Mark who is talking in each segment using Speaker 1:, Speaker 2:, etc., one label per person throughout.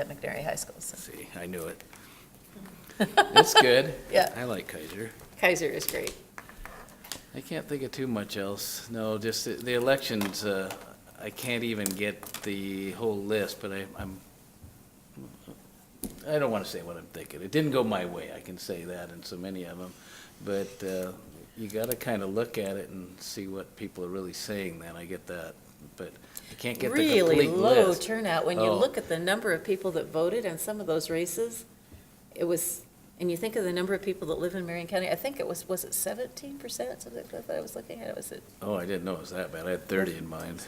Speaker 1: at McNairy High School. so-
Speaker 2: See, I knew it. It's good.
Speaker 1: Yeah.
Speaker 2: I like Kaiser.
Speaker 3: Kaiser is great.
Speaker 2: I can't think of too much else. No, just the- the elections, uh, I can't even get the whole list, but I, I'm, I don't want to say what I'm thinking. It didn't go my way, I can say that in so many of them. But uh, you got to kind of look at it and see what people are really saying then, I get that. But I can't get the
Speaker 3: Really
Speaker 2: complete
Speaker 3: low
Speaker 2: list.
Speaker 3: turnout. When you
Speaker 2: Oh.
Speaker 3: look at the number of people that voted on some of those races, it was, and you think of the number of people that live in Marion County, I think it was, was it seventeen percent, something like that I was looking at? it. Was it,
Speaker 2: Oh, I didn't know it was that bad. I had 30 in mind.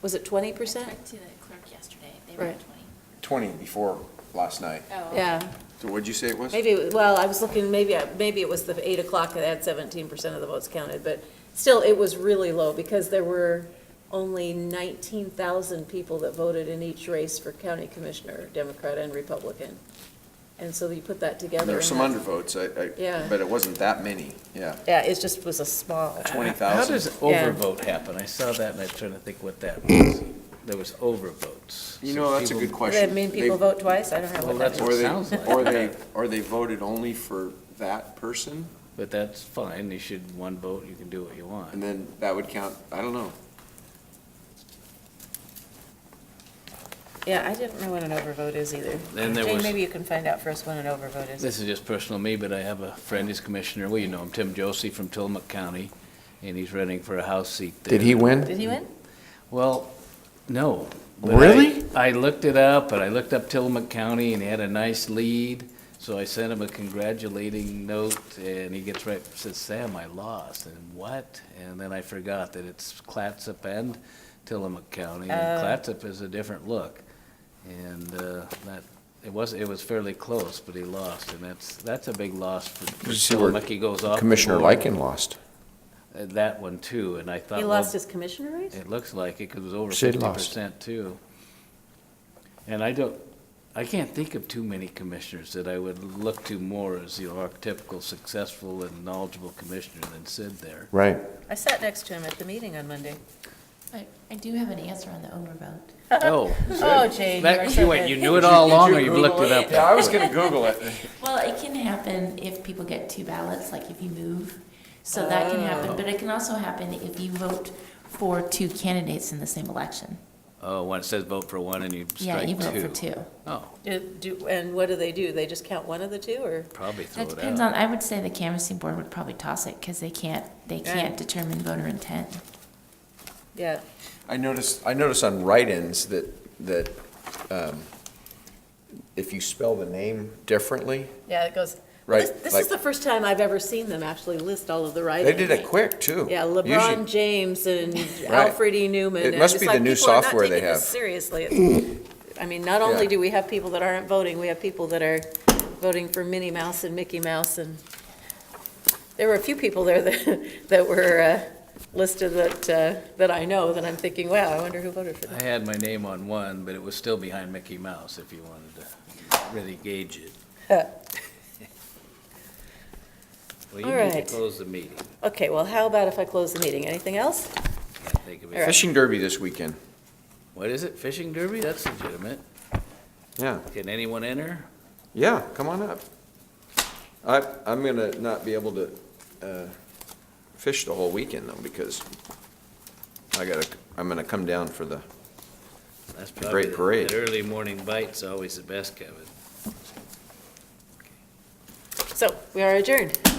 Speaker 3: was it twenty
Speaker 4: I
Speaker 3: percent?
Speaker 4: talked to the clerk yesterday, they were at
Speaker 3: Right.
Speaker 5: 20 before last night.
Speaker 4: 20. Oh.
Speaker 3: Yeah,
Speaker 5: So what'd you say it was?
Speaker 3: maybe, it was- well, I was looking, maybe, I- maybe it was the eight o'clock that had seventeen percent of the votes counted, but still, it was really low because there were only nineteen thousand people that voted in each race for county commissioner, Democrat and Republican. And so you put that together.
Speaker 5: There were
Speaker 3: and
Speaker 5: some
Speaker 3: that's-
Speaker 5: undervotes, I,
Speaker 3: Yeah.
Speaker 5: I, but it wasn't that many, yeah.
Speaker 1: Yeah, it just was a small,
Speaker 2: How does
Speaker 5: 20,000.
Speaker 3: Yeah.
Speaker 2: overvote happen? I saw that and I'm trying to think what that was. There was overvotes.
Speaker 5: Hmm. You
Speaker 2: So
Speaker 5: know, that's a
Speaker 2: people-
Speaker 5: good
Speaker 1: does that
Speaker 5: question.
Speaker 1: mean
Speaker 5: They-
Speaker 1: people vote twice? I don't know
Speaker 2: Well,
Speaker 1: what that
Speaker 2: that's
Speaker 1: is.
Speaker 2: what
Speaker 5: Or
Speaker 2: it
Speaker 5: they,
Speaker 2: sounds like.
Speaker 5: or they, or they voted only for that person,
Speaker 2: But that's fine, you should, one vote, you can do what you want.
Speaker 5: and then that would count, I don't know.
Speaker 1: Yeah, I didn't know what an overvote is either.
Speaker 2: Then there
Speaker 1: Jane,
Speaker 2: was-
Speaker 1: maybe you can find out for us what an overvote is.
Speaker 2: This is just personal me, but I have a friend, he's commissioner, well, you know him, Tim Josie from Tillamook County, and he's running for a House seat there.
Speaker 1: Did he win?
Speaker 2: Well, no. but I-
Speaker 6: Really?
Speaker 2: I looked it up, and I looked up Tillamook County, and he had a nice lead, so I sent him a congratulating note, and he gets right, says, Sam, I lost, and what? And then I forgot that it's Clatsop and Tillamook County, and
Speaker 1: Oh.
Speaker 2: Clatsop is a different look. And, uh, that, it was, it was fairly close, but he lost, and that's, that's a big loss for for
Speaker 6: you see where
Speaker 2: Tillamook, he goes off. the
Speaker 6: Commissioner
Speaker 2: board.
Speaker 6: Lycan lost.
Speaker 2: Uh, That one too, and I thought.
Speaker 3: He
Speaker 2: well,
Speaker 3: lost his commissioner race?
Speaker 2: it looks like it, 'cause it was over
Speaker 6: Sid
Speaker 2: fifty
Speaker 6: lost.
Speaker 2: percent too. And I don't, I can't think of too many commissioners that I would look to more as the archetypical successful and knowledgeable commissioner than Sid there.
Speaker 6: Right.
Speaker 1: I sat next to him at the meeting on Monday.
Speaker 4: I, I do have an answer on the overvote.
Speaker 2: Oh,
Speaker 1: Oh, Jane, you are
Speaker 2: that,
Speaker 1: so
Speaker 2: you wait,
Speaker 1: good.
Speaker 2: you knew it all along or you've looked it up?
Speaker 5: Yeah, I was gonna Google it.
Speaker 4: Well, it can happen if people get two ballots, like if you move, so that can happen, but it can also happen if you vote for two candidates in the same election.
Speaker 2: Oh, when it says vote for one and you
Speaker 4: Yeah, you
Speaker 2: strike
Speaker 4: vote for
Speaker 2: two.
Speaker 4: two.
Speaker 2: Oh,
Speaker 3: Do- do- And what do they do? They just count one of the two, or?
Speaker 2: probably throw
Speaker 4: That
Speaker 2: it
Speaker 4: depends
Speaker 2: out.
Speaker 4: on, I would say the canvassing board would probably toss it, because they can't, they
Speaker 3: Yeah.
Speaker 4: can't determine voter intent.
Speaker 3: Yeah,
Speaker 5: I noticed, I noticed on write-ins that, that, um, if you spell the name differently,
Speaker 1: Yeah, it goes,
Speaker 5: right?
Speaker 3: This- This
Speaker 5: like,
Speaker 3: is the first time I've ever seen them actually list all of the write-ins.
Speaker 5: They did it quick, too.
Speaker 3: Yeah,
Speaker 5: Usually-
Speaker 3: LeBron James and Alfred E. Newman.
Speaker 5: It
Speaker 3: and
Speaker 5: must
Speaker 3: it's
Speaker 5: be the
Speaker 3: like
Speaker 5: new
Speaker 3: people are not
Speaker 5: software they
Speaker 3: taking this
Speaker 5: have.
Speaker 3: Seriously. It's- I mean, not only
Speaker 5: Yeah.
Speaker 3: do we have people that aren't voting, we have people that are voting for Minnie Mouse and Mickey Mouse, and there were a few people there that, that were uh, listed that, uh, that I know, that I'm thinking, wow, I wonder who voted for them.
Speaker 2: I had my name on one, but it was still behind Mickey Mouse if you wanted to really gauge it. Well, you need
Speaker 3: Alright.
Speaker 2: to close the meeting.
Speaker 3: Okay, well, how about if I close the meeting? Anything else?
Speaker 2: Can't think of it.
Speaker 5: Fishing derby this weekend.
Speaker 2: What is it, fishing derby? That's legitimate.
Speaker 5: Yeah.
Speaker 2: Can anyone enter?
Speaker 5: Yeah, come on up. I, I'm gonna not be able to, uh, fish the whole weekend though, because I gotta, I'm gonna come down for the,
Speaker 2: That's
Speaker 5: great
Speaker 2: probably the-
Speaker 5: parade.
Speaker 2: That early morning bite's always the best, Kevin.
Speaker 3: So, we are adjourned.